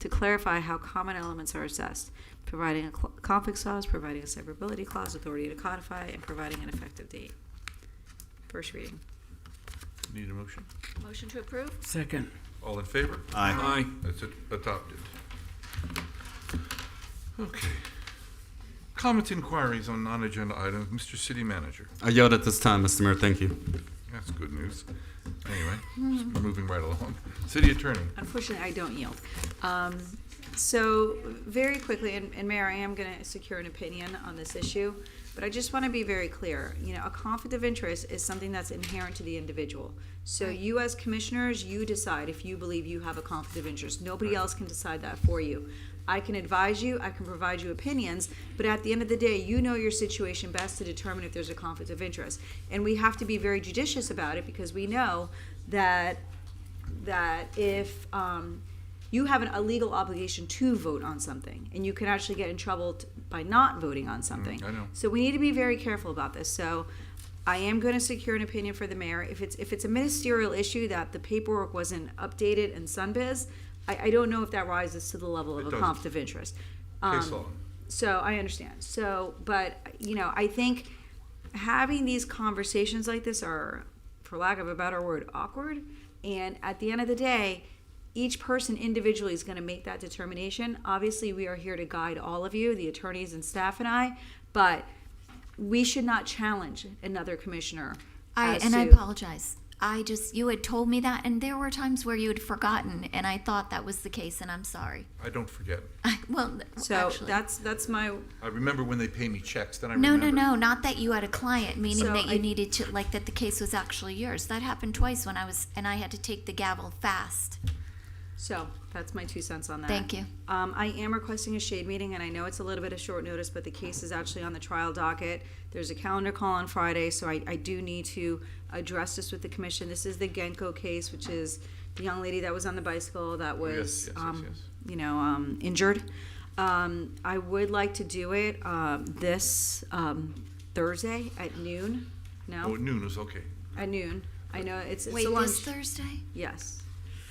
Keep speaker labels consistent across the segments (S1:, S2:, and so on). S1: to clarify how common elements are assessed, providing a cl- conflict clause, providing a severability clause, authority to codify, and providing an effective date. First reading.
S2: Need a motion?
S3: Motion to approve?
S4: Second.
S2: All in favor?
S5: Aye.
S4: Aye.
S2: That's it, adopted. Okay. Comments, inquiries on non-agenda items, Mr. City Manager.
S5: I yield at this time, Mr. Mayor. Thank you.
S2: That's good news. Anyway, just moving right along. City Attorney.
S1: Unfortunately, I don't yield. Um, So, very quickly, and and Mayor, I am going to secure an opinion on this issue, but I just want to be very clear. You know, a conflict of interest is something that's inherent to the individual. So you as commissioners, you decide if you believe you have a conflict of interest. Nobody else can decide that for you. I can advise you, I can provide you opinions, but at the end of the day, you know your situation best to determine if there's a conflict of interest. And we have to be very judicious about it because we know that that if um, you have an, a legal obligation to vote on something, and you can actually get in trouble t- by not voting on something.
S2: Mm, I know.
S1: So we need to be very careful about this. So I am going to secure an opinion for the mayor. If it's if it's a ministerial issue that the paperwork wasn't updated in Sunbiz, I, I don't know if that rises to the level
S2: It
S1: of a
S2: doesn't.
S1: conflict of interest.
S2: Case
S1: Um,
S2: law.
S1: so I understand. So, but you know, I think having these conversations like this are, for lack of a better word, awkward. And at the end of the day, each person individually is going to make that determination. Obviously, we are here to guide all of you, the attorneys and staff, and I. But we should not challenge another commissioner.
S3: I,
S1: as
S3: and I
S1: to-
S3: apologize. I just, you had told me that, and there were times where you had forgotten, and I thought that was the case, and I'm sorry.
S2: I don't forget.
S3: well, th-
S1: So
S3: actually.
S1: that's that's my
S2: I remember when they pay me checks, then I
S3: no,
S2: remember.
S3: no, no, not that you had a client, meaning
S1: So
S3: that you
S1: I-
S3: needed to, like, that the case was actually yours. That happened twice when I was, and I had to take the gavel fast.
S1: so that's my two cents on that.
S3: Thank you.
S1: Um, I am requesting a shade meeting, and I know it's a little bit of short notice, but the case is actually on the trial docket. There's a calendar call on Friday, so I, I do need to address this with the commission. This is the Genko case, which is the young lady that was on the bicycle that
S2: Yes,
S1: was,
S2: yes, yes,
S1: um,
S2: yes.
S1: you know, um, injured. Um, I would like to do it, um, this, um, Thursday at noon,
S2: Oh,
S1: no,
S2: noon is okay.
S1: at noon. I know it's, it's
S3: Wait,
S1: a lunch.
S3: this Thursday?
S1: Yes.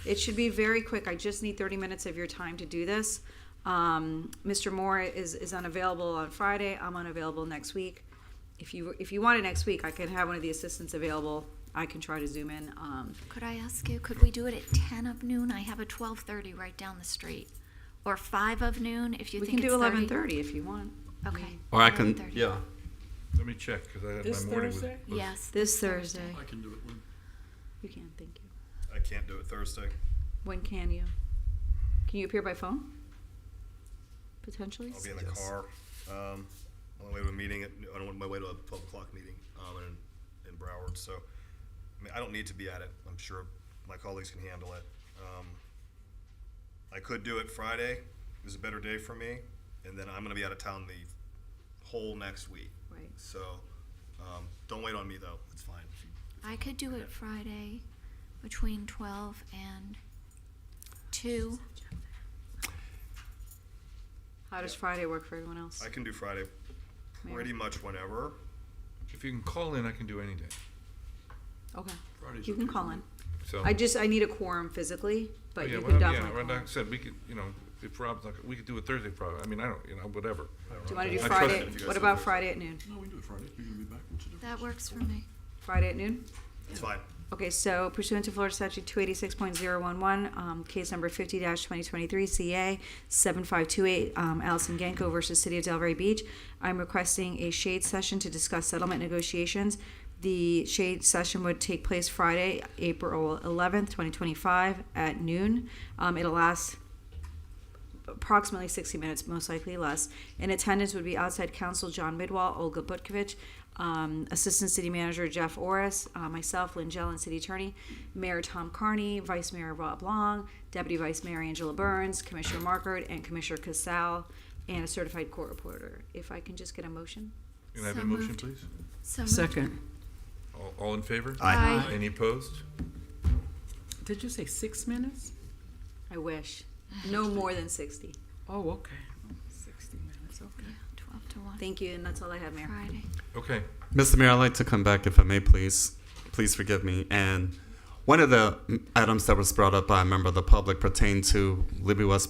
S1: It should be very quick. I just need 30 minutes of your time to do this. Um, Mr. Moore is, is unavailable on Friday. I'm unavailable next week. If you, if you want it next week, I can have one of the assistants available. I can try to zoom in. Um,
S3: Could I ask you, could we do it at 10 of noon? I have a 12:30 right down the street. Or 5 of noon, if you
S1: we
S3: think
S1: can
S3: it's
S1: do
S3: 30.
S1: 11:30 if you want.
S3: Okay.
S5: Or I can,
S3: 11:30.
S5: yeah.
S2: Let me check, because I had
S4: This
S2: my morning with.
S4: Thursday?
S2: with-
S3: Yes.
S1: This Thursday.
S6: I can do it when.
S1: You can, thank you.
S6: I can't do it Thursday.
S1: When can you? Can you appear by phone? Potentially?
S6: I'll be in the car. Um, on my way to a meeting, at, on my way to a twelve o'clock meeting, um, in, in Broward, so. I mean, I don't need to be at it. I'm sure my colleagues can handle it. Um, I could do it Friday, is a better day for me, and then I'm gonna be out of town the whole next week.
S1: Right.
S6: So, um, don't wait on me though, it's fine.
S3: I could do it Friday between 12 and 2.
S1: How does Friday work for everyone else?
S6: I can do Friday
S1: Mary?
S6: pretty much whenever.
S2: If you can call in, I can do any day.
S1: Okay,
S6: Friday's
S1: you can call in.
S2: So.
S1: I just, I need a quorum physically,
S2: Oh,
S1: but
S2: yeah,
S1: you
S2: well,
S1: can
S2: yeah,
S1: definitely.
S2: right,
S1: call in.
S2: like I said, we could, you know, if Rob's not, we could do it Thursday probably. I mean, I don't, you know, whatever.
S1: Do you want to do
S2: I trust
S1: Friday?
S2: it if
S6: you guys
S1: What
S6: do
S1: about
S6: Thursday.
S1: Friday at noon?
S6: No, we can do it Friday. You're gonna be back.
S3: That works for me.
S1: Friday at noon?
S6: It's fine.
S1: Okay, so pursuant to Florida Statute 286.011, um, case number 50-2023, CA 7528, um, Allison Genko versus City of Delray Beach, I'm requesting a shade session to discuss settlement negotiations. The shade session would take place Friday, April 11th, 2025, at noon. Um, It'll last approximately 60 minutes, most likely less. In attendance would be outside counsel John Midwall, Olga Butkovich, um, Assistant City Manager Jeff Orris, uh, myself, Lynn Jellin, City Attorney, Mayor Tom Carney, Vice Mayor Rob Long, Deputy Vice Mayor Angela Burns, Commissioner Markert, and Commissioner Casal, and a certified court reporter. If I can just get a motion?
S2: Can I have a
S3: So
S2: motion,
S3: moved.
S2: please?
S3: So moved.
S4: Second.
S2: All, all in favor?
S3: Aye.
S2: Any opposed?
S4: Did you say six minutes?
S1: I wish. No more than 60.
S4: Oh, okay. Sixty minutes,
S3: Yeah,
S4: okay.
S3: 12 to 1.
S1: Thank you, and that's all I have, Mayor.
S3: Friday.
S2: Okay,
S5: Mr. Mayor, I'd like to come back if I may, please. Please forgive me. And one of the items that was brought up by a member of the public pertained to Libby West